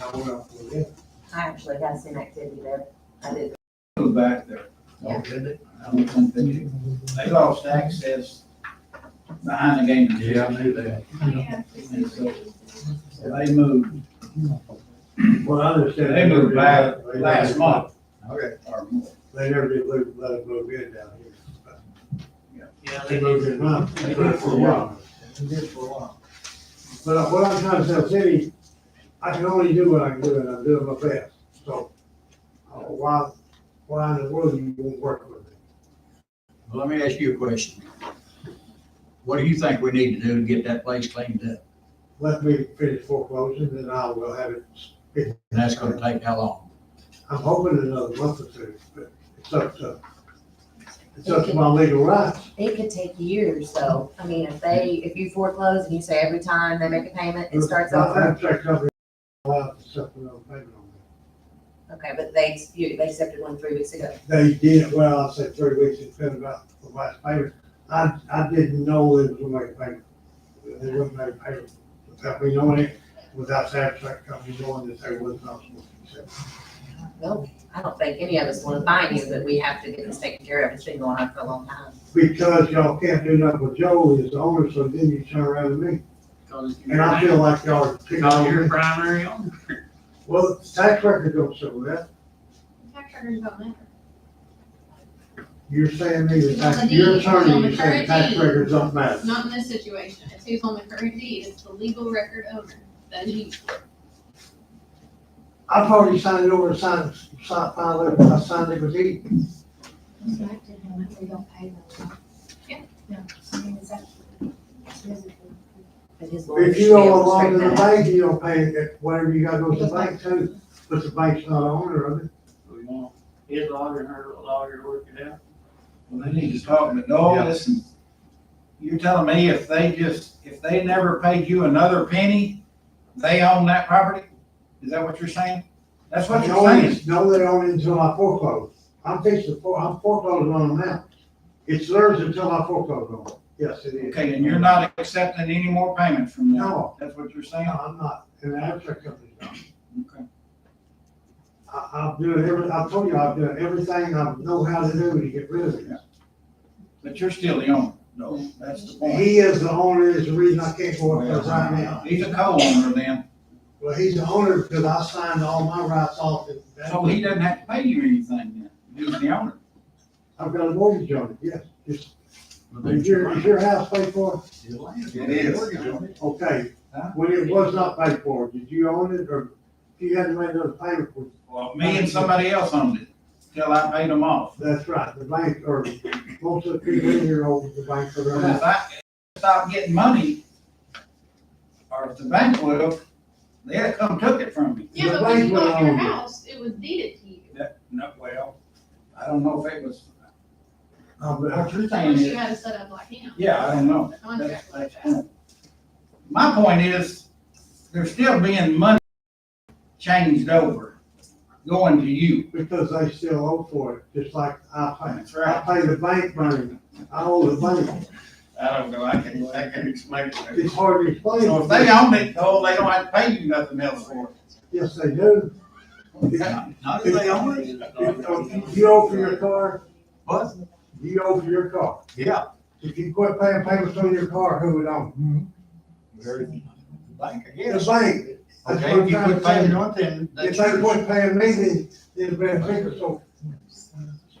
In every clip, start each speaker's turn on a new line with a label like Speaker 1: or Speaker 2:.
Speaker 1: I went up with it.
Speaker 2: I actually got some activity there. I did.
Speaker 1: It was back there.
Speaker 2: Yeah.
Speaker 1: I don't think They they lost access behind the game.
Speaker 3: Yeah, I knew that.
Speaker 1: And so, so they moved,
Speaker 3: Well, I understand.
Speaker 1: they moved back last month.
Speaker 3: Okay.
Speaker 1: Or more.
Speaker 3: They never did let, let it move in down here.
Speaker 4: Yeah,
Speaker 3: They moved in now.
Speaker 1: They did for a while.
Speaker 3: They did for a while. But I- what I'm trying to tell the city, I can only do what I can do and I'm doing my best, so. uh, Why, why in the world you won't work with me?
Speaker 5: Well, Let me ask you a question. What do you think we need to do to get that place cleaned up?
Speaker 3: Let me finish foreclosing and I will have it.
Speaker 5: And that's gonna take how long?
Speaker 3: I'm hoping another month or two, but it's up to, it's up to my legal rights.
Speaker 2: It could take years though. I mean, if they, if you foreclose and you say every time they make a payment, it starts
Speaker 3: My
Speaker 2: over.
Speaker 3: abstract company allowed to supplemental payment on
Speaker 2: Okay, but they, you, they accepted one three weeks ago.
Speaker 3: that. They did, well, I said three weeks, it's been about the last payment. I, I didn't know it was gonna make payment. They wouldn't make payment without me knowing it, without the abstract company knowing that they was not supposed to accept. it.
Speaker 2: Well, I don't think any of us want to find you, but we have to get this taken care of. It's been going on for a long time.
Speaker 3: Because y'all can't do nothing with Joel as the owner, so then you turn around to me. And I feel like y'all are picking
Speaker 4: Call
Speaker 3: on
Speaker 4: your
Speaker 3: me.
Speaker 4: primary owner.
Speaker 3: Well, the tax record don't show that.
Speaker 6: Tax records don't matter.
Speaker 3: You're saying me, the
Speaker 6: It's on
Speaker 3: tax,
Speaker 6: the
Speaker 3: your
Speaker 6: deed, it's on
Speaker 3: attorney,
Speaker 6: the
Speaker 3: you're saying tax
Speaker 6: deed.
Speaker 3: records don't matter.
Speaker 6: Not in this situation. It's who's on the current deed. It's the legal record owner. That is
Speaker 3: I've already signed it over to sign, sign, file it, I signed it with E.
Speaker 7: We don't pay them. huh?
Speaker 6: Yeah.
Speaker 7: No, I mean, is that- is it-
Speaker 2: But his lawyers
Speaker 3: If
Speaker 2: should
Speaker 3: you
Speaker 2: be
Speaker 3: go
Speaker 2: able to
Speaker 3: along to
Speaker 2: straighten
Speaker 3: the
Speaker 2: that out.
Speaker 3: bank, you don't pay it, whatever you gotta go to the bank too, but the bank's not owner of it.
Speaker 4: We want his lawyer and her lawyer to work it out.
Speaker 1: Well, they need to talk, but no,
Speaker 3: Yeah.
Speaker 1: listen. You're telling me if they just, if they never paid you another penny, they own that property? Is that what you're saying? That's
Speaker 3: No,
Speaker 1: what you're saying.
Speaker 3: it's- No, they own it until I foreclose. I'm fixing, to fore- I'm foreclosing on them now. It's theirs until I foreclose on them. Yes, it is.
Speaker 1: Okay, and you're not accepting any more payments from them?
Speaker 3: No.
Speaker 1: That's what you're
Speaker 3: No,
Speaker 1: saying?
Speaker 3: I'm not, and the abstract company's not.
Speaker 1: Okay.
Speaker 3: I, I'm doing every, I told you, I'm doing everything I know how to do to get rid of it.
Speaker 1: But you're still the owner, though. That's the point.
Speaker 3: He is the owner, is the reason I can't go up there right now.
Speaker 1: He's a co-owner then,
Speaker 3: Well, he's the owner because I signed all my rights off and
Speaker 1: so he doesn't have to pay you anything then. He's the owner.
Speaker 3: I've got a mortgage on it, yes. It's-
Speaker 5: But
Speaker 3: Is your, is your house paid for?
Speaker 5: It is.
Speaker 1: It is.
Speaker 5: Mortgage on it.
Speaker 3: Okay.
Speaker 1: Huh?
Speaker 3: When it was not paid for, did you own it or if you hadn't made another payment for it?
Speaker 1: Well, me and somebody else owned it till I paid them off.
Speaker 3: That's right, the bank or most of the people in here own the bank for their
Speaker 1: But if
Speaker 3: house.
Speaker 1: I stopped getting money, or if the bank would have, they'd have come took it from me.
Speaker 6: Yeah,
Speaker 3: The
Speaker 6: but when
Speaker 3: bank
Speaker 6: you bought your
Speaker 3: went on.
Speaker 6: house, it was deeded to you.
Speaker 1: That, no, well, I don't know if it was,
Speaker 3: Uh, but
Speaker 1: what you're saying
Speaker 6: Unless you
Speaker 1: is,
Speaker 6: had a setup like him.
Speaker 1: yeah, I don't know.
Speaker 6: A
Speaker 1: That's-
Speaker 6: contract like
Speaker 1: that's
Speaker 6: that.
Speaker 1: cool. My point is, there's still being money changed over, going to you.
Speaker 3: Because they still owe for it, just like I pay.
Speaker 1: That's
Speaker 3: I
Speaker 1: right.
Speaker 3: pay the bank money. I owe the bank.
Speaker 1: I don't know, I can, I can explain it.
Speaker 3: It's hard to explain.
Speaker 1: So if they own it, though, they don't have to pay you nothing else for
Speaker 3: Yes, they do. If-
Speaker 1: it.
Speaker 5: Not if they own it.
Speaker 3: if You owe for your car,
Speaker 5: What?
Speaker 3: you owe for your car.
Speaker 5: Yeah.
Speaker 3: If you quit paying payments on your car, who would own?
Speaker 5: Very- Bank, I
Speaker 3: it? The
Speaker 5: guess.
Speaker 3: bank. That's
Speaker 5: Okay,
Speaker 3: what
Speaker 5: if you
Speaker 3: I'm
Speaker 5: quit
Speaker 3: trying to
Speaker 5: paying
Speaker 3: say.
Speaker 5: on then.
Speaker 3: If they quit paying me, then it'd be a bigger, so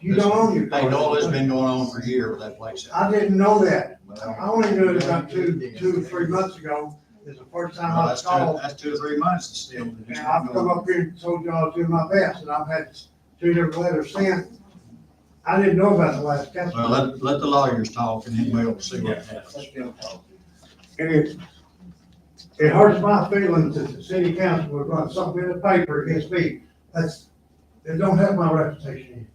Speaker 3: you don't own your
Speaker 5: Hey, Noel, it's
Speaker 3: car.
Speaker 5: been going on for a year with that place.
Speaker 3: I didn't know that. I
Speaker 5: Well,
Speaker 3: only knew it about two, two, or three months ago. It's the first time I
Speaker 5: That's two,
Speaker 3: called.
Speaker 5: that's two or three months and still. it's
Speaker 3: And
Speaker 5: just
Speaker 3: I've
Speaker 5: not
Speaker 3: come
Speaker 5: going.
Speaker 3: up here and told y'all to do my best, and I've had two different letters sent. I didn't know about the last council.
Speaker 5: Well, let, let the lawyers talk and then we'll see what happens.
Speaker 3: And it, it hurts my feelings that the city council would run something in the paper against me. That's, it don't have my reputation.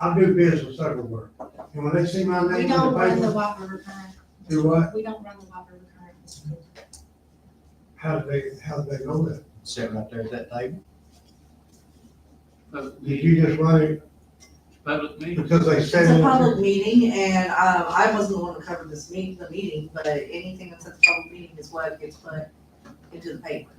Speaker 3: I do business everywhere. And when they see my name
Speaker 7: We
Speaker 3: in the
Speaker 7: don't run the
Speaker 3: paper,
Speaker 7: Whopper recurrent.
Speaker 3: do what?
Speaker 7: We don't run the Whopper recurrent. Mr. Cooper.
Speaker 3: How do they, how do they know that?
Speaker 5: Sit right there at that table.
Speaker 4: Public
Speaker 3: Did
Speaker 4: meeting,
Speaker 3: you just run it
Speaker 4: public meeting.
Speaker 3: because they said?
Speaker 8: It's a
Speaker 3: it?
Speaker 8: public meeting and, um, I wasn't the one to cover this meeting, the meeting, but anything that's at the public meeting is what gets put into the paper.